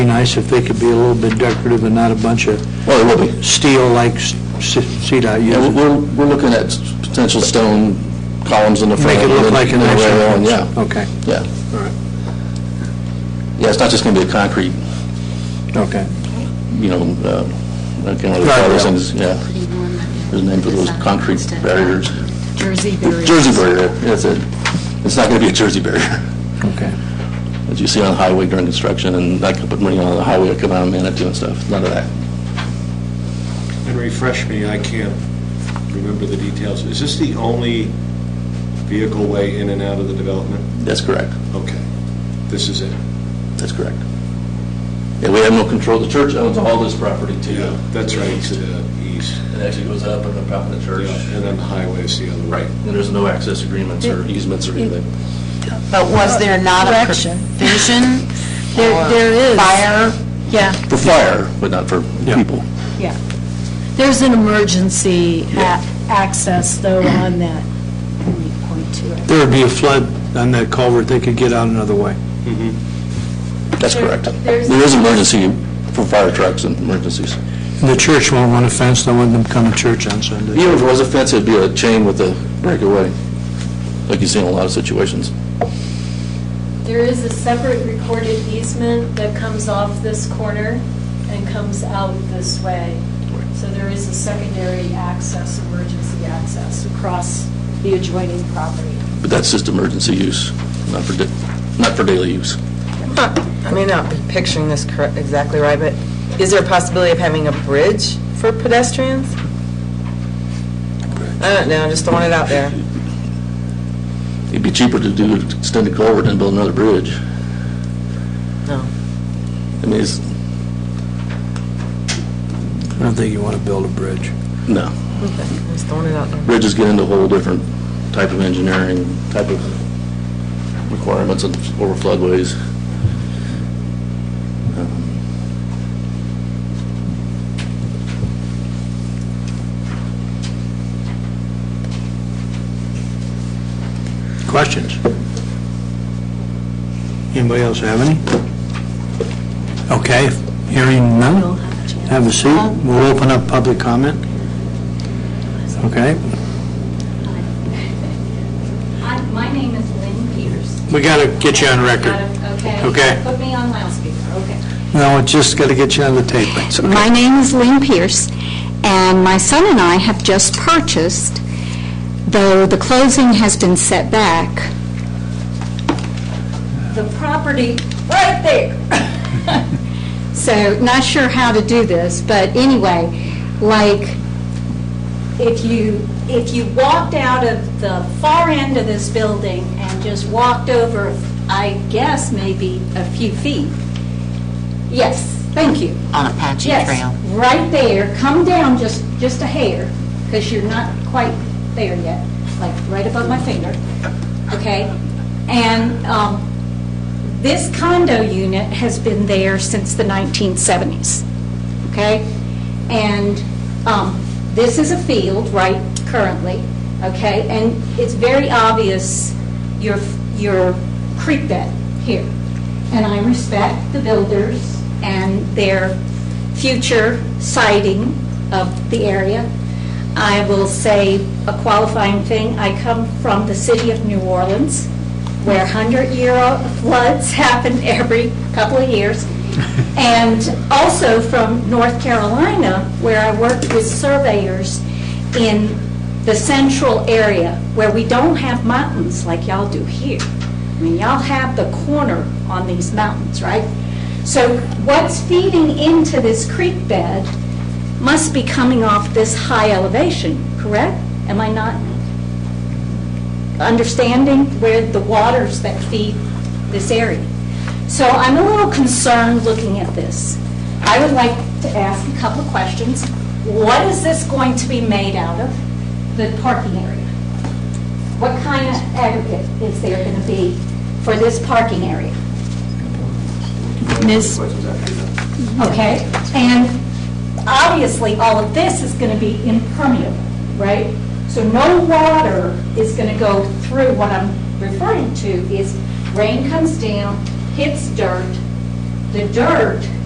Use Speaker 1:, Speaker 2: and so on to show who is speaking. Speaker 1: nice if they could be a little bit decorative and not a bunch of
Speaker 2: Well, it will be.
Speaker 1: steel like s- s- CDOT
Speaker 2: Yeah,
Speaker 1: uses.
Speaker 2: we're, we're looking at potential stone columns in the front.
Speaker 1: Make it look
Speaker 2: and
Speaker 1: like an
Speaker 2: the
Speaker 1: actual
Speaker 2: rail, and
Speaker 1: house.
Speaker 2: Yeah,
Speaker 1: Okay,
Speaker 2: yeah.
Speaker 1: all right,
Speaker 2: Yeah, it's not just going to be a concrete,
Speaker 1: okay.
Speaker 2: you know, uh, I can't really call those things, yeah. There's a name for those concrete barriers.
Speaker 3: Jersey barriers.
Speaker 2: Jersey barrier, that's it. It's not going to be a Jersey barrier,
Speaker 1: Okay.
Speaker 2: that you see on the highway during construction, and I could put money on the highway, I come out of Manitou and stuff, none of that.
Speaker 4: And refresh me, I can't remember the details. Is this the only vehicle way in and out of the development?
Speaker 2: That's correct,
Speaker 4: Okay, this is it.
Speaker 2: that's correct. Yeah, we have no control, the church owns all this property too.
Speaker 4: That's right, to the east.
Speaker 2: It actually goes up and up out in the
Speaker 4: Yeah,
Speaker 2: church.
Speaker 4: And then the highway's the other way.
Speaker 2: And there's no access agreements or easements or anything.
Speaker 5: But was there not a
Speaker 6: Correction.
Speaker 5: provision
Speaker 6: There, there
Speaker 5: for
Speaker 6: is.
Speaker 5: fire?
Speaker 6: Yeah,
Speaker 2: For fire, but not for people.
Speaker 6: yeah. There's an emergency a- access, though, on that 3.2.
Speaker 1: There would be a flood on that culvert, they could get out another way.
Speaker 2: That's correct. There is emergency for fire trucks and emergencies.
Speaker 1: And The church won't want a fence, they want them to come to church on Sunday.
Speaker 2: Even if it was a fence, it'd be a chain with a breakaway, like you see in a lot of situations.
Speaker 7: There is a separate recorded easement that comes off this corner and comes out this way. So there is a secondary access, emergency access across the adjoining property.
Speaker 2: But that's just emergency use, not for, da- not for daily use.
Speaker 8: I may not be picturing this correct, exactly right, but is there a possibility of having a bridge for pedestrians? I don't know, just throwing it out there.
Speaker 2: It'd be cheaper to do an extended culvert than build another bridge.
Speaker 8: No.
Speaker 2: I mean, it's,
Speaker 1: I don't think you want to build a bridge.
Speaker 2: no.
Speaker 8: Okay, just throwing it out there.
Speaker 2: Bridges get into a whole different type of engineering, type of requirements of- over floodways. Um,
Speaker 1: Questions? Anybody else have any? Okay, hearing none, have a seat. We'll open up public comment. Okay,
Speaker 9: Hi,
Speaker 7: Uh,
Speaker 9: my name is Lynn Peters.
Speaker 1: we got to get you on
Speaker 9: Got
Speaker 1: record.
Speaker 9: it? Okay.
Speaker 1: Okay.
Speaker 9: Put me on loudspeaker, okay.
Speaker 1: No, we just got to get you on the tape. It's okay.
Speaker 9: My name is Lynn Pierce, and my son and I have just purchased, though the closing has been set back, the property right there. So, not sure how to do this, but anyway, like,
Speaker 7: If you, if you walked out of the far end of this building and just walked over, I guess maybe a few feet, yes, thank you.
Speaker 5: On Apache Trail.
Speaker 7: Yes, right there, come down just, just a hair, because you're not quite there yet, like right above my finger, okay? And um, this condo unit has been there since the 1970s, okay? And um, this is a field, right, currently, okay? And it's very obvious, your, your creek bed here. And I respect the builders and their future sighting of the area. I will say a qualifying thing, I come from the city of New Orleans, where 100-year floods happen every couple of years, and also from North Carolina, where I worked with surveyors in the central area, where we don't have mountains like y'all do here. I mean, y'all have the corner on these mountains, right? So what's feeding into this creek bed must be coming off this high elevation, correct? Am I not understanding where the waters that feed this area? So I'm a little concerned looking at this. I would like to ask a couple of questions. What is this going to be made out of, the parking area? What kind of aggregate is there going to be for this parking area?
Speaker 6: Ms.
Speaker 7: okay? And obviously, all of this is going to be impermeable, right? So no water is going to go through, what I'm referring to is rain comes down, hits dirt, the dirt